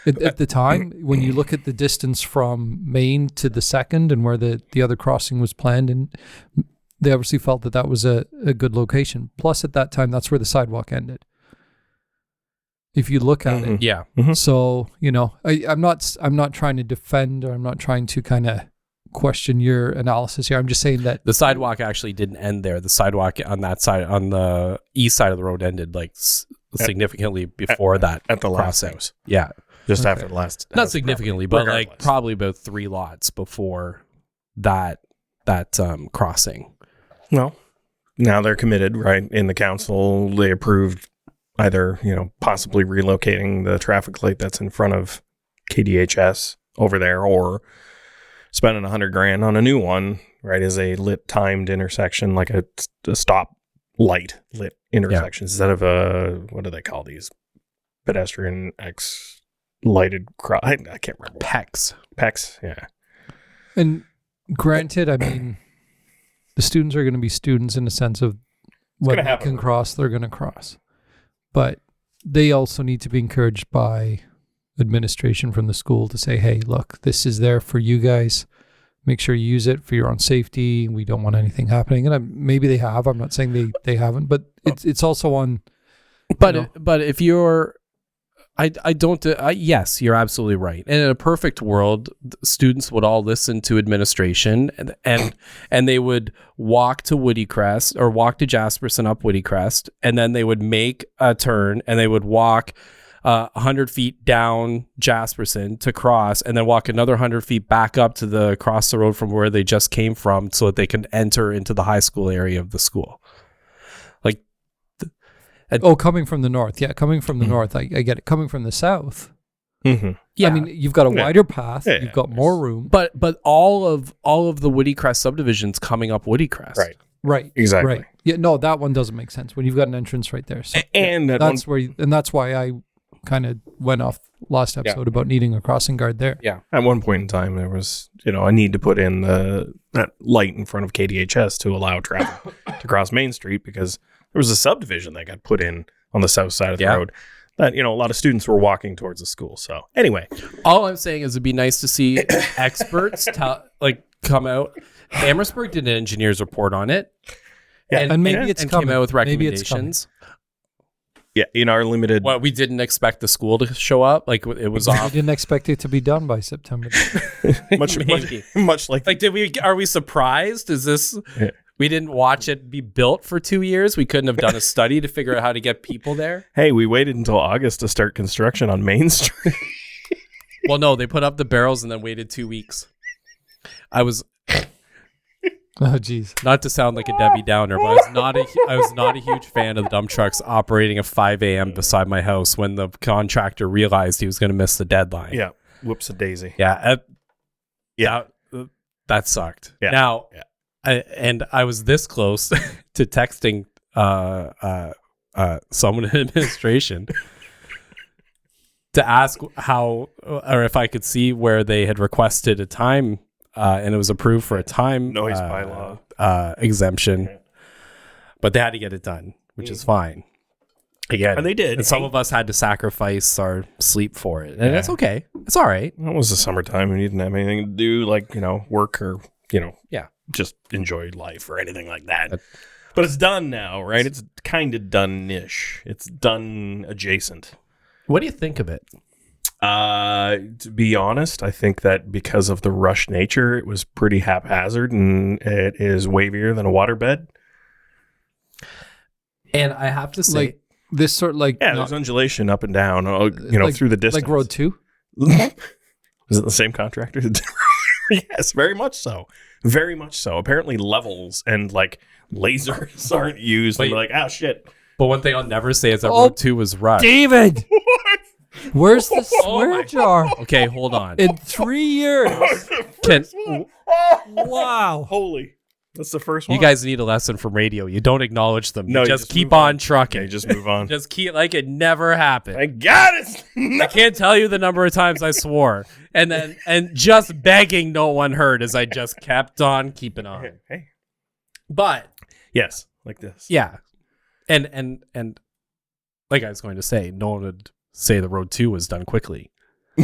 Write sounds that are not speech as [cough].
At, at the time, when you look at the distance from Maine to the second and where the, the other crossing was planned, and they obviously felt that that was a, a good location. Plus, at that time, that's where the sidewalk ended. If you look at Hmm. Mm-hmm. it, Yeah. so you know, I, I'm not s- I'm not trying to defend or I'm not trying to kind of question your analysis here. I'm just saying that The sidewalk actually didn't end there. The sidewalk on that side, on the east side of the road, ended like s- significantly before that at the last crossing. house. Yeah, Just after the last. not house significantly, proper. but like Regardless. probably about three lots before that that um, crossing. No. Now they're committed, right? In the council, they approved either, you know, possibly relocating the traffic light that's in front of KDHS over there or spending a hundred grand on a new one, right? Is a lit timed intersection, like a, a stop light lit intersection instead of a, what do they call these? Pedestrian X lighted cross. I, I can't remember. Pecs. PEX. Yeah. And granted, I mean, the students are going to be students in the sense of when gonna they happen. can cross, they're going to cross. But they also need to be encouraged by administration from the school to say, hey, look, this is there for you guys. Make sure you use it for your own safety. We don't want anything happening. And I, maybe they have. I'm not saying they, they haven't, but it's it's also on. But know? but if you're, I I don't. I, yes, you're absolutely right. And in a perfect world, th- students would all listen to administration and and, and they would walk to Woody Crest or walk to Jasperson up Woody Crest, and then they would make a turn and they would walk. Uh, 100 feet down Jasperson to cross and then walk another 100 feet back up to the across the road from where they just came from so that they can enter into the high school area of the school. Oh, coming from the north. Yeah, coming from Mm. the north. I, I get it. Coming from the south. Mm-hmm. I mean, you've got a Yeah. wider path, Yeah, you've got more room. But but all of all of the Woody Crest subdivisions coming up Woody Crest. Right. Right. Exactly. Right. Yeah. No, that one doesn't make sense when you've got an entrance right there. So And at one that's where, you, and that's why I kind of went off last episode about needing a crossing guard there. At one point in time, there was you know a need to put in the that light in front of KDHS to allow traffic to cross Main Street because there was a subdivision that got put in on the south side of the Yeah. road that you know a lot of students were walking towards the school. So anyway, All I'm saying is it'd be nice to see [coughs] experts tell like come out. Amherstburg did an engineer's report on it. Yeah. And maybe and- it's and coming. came out with Maybe it's coming. recommendations. yeah, in our limited Well, we didn't expect the school to show up. Like it was Uh-huh. I off. didn't expect it to be done by September. [laughs] [laughs] much, much Maybe. much like Like did we? Are we surprised? Is this? Yeah. We didn't watch it be built for two years. We couldn't have done a study to figure out how to get people there. hey, we waited until August to start construction on Main Street. Well, no, they put up the barrels and then waited two weeks. I was oh, geez. not to sound like a Debbie Downer, but I was not a I was not a huge fan of the dump trucks operating at 5 a.m. beside my house when the contractor realized he was going to miss the deadline. yeah, whoops a daisy. yeah, uh, Yeah. that, that sucked. Yeah. Now, Yeah. I, and I was this close [laughs] to texting uh, uh, uh, someone in [laughs] administration. To ask how or if I could see where they had requested a time, uh, and it was approved for a time Noise uh, bylaw. uh, exemption, but they had to get it done, which is fine. Again, Mm. And they did. And some of us had to sacrifice our sleep for it, and that's okay. It's all right. That was the summertime and you didn't have anything to do, like, you know, work or, you know, Yeah. just enjoy life or anything like that. but it's done now, right? It's kind of done ish. It's done adjacent. What do you think of it? Uh, to be honest, I think that because of the rush nature, it was pretty haphazard and it is wavier than a waterbed. And I have to say, Like, this sort like, Yeah, not- there's undulation up and down, uh, you know, like- through the distance. like road two. [laughs] Is it the same contractor? [laughs] yes, very much so. Very much so. Apparently, levels and like lasers [laughs] aren't used. And Wait. they're like, oh shit. but one thing I'll never say is that Oh. Road Two was [laughs] rushed. David, where's the Oh swear my- jar? Okay, hold on. In three years. Can, wow. Oh. Holy. That's the first one. you guys need a lesson from radio. You don't acknowledge them. No, you you just, just keep move on. on trucking. Okay, [laughs] just move on. just keep like it never happened. I got it. No. [laughs] I can't tell you the number of times I swore, and then and just begging no one heard as I just kept on keeping on. Hey. But Yes, like this. yeah, and and and like I was going to say, no one would say the road two was done quickly.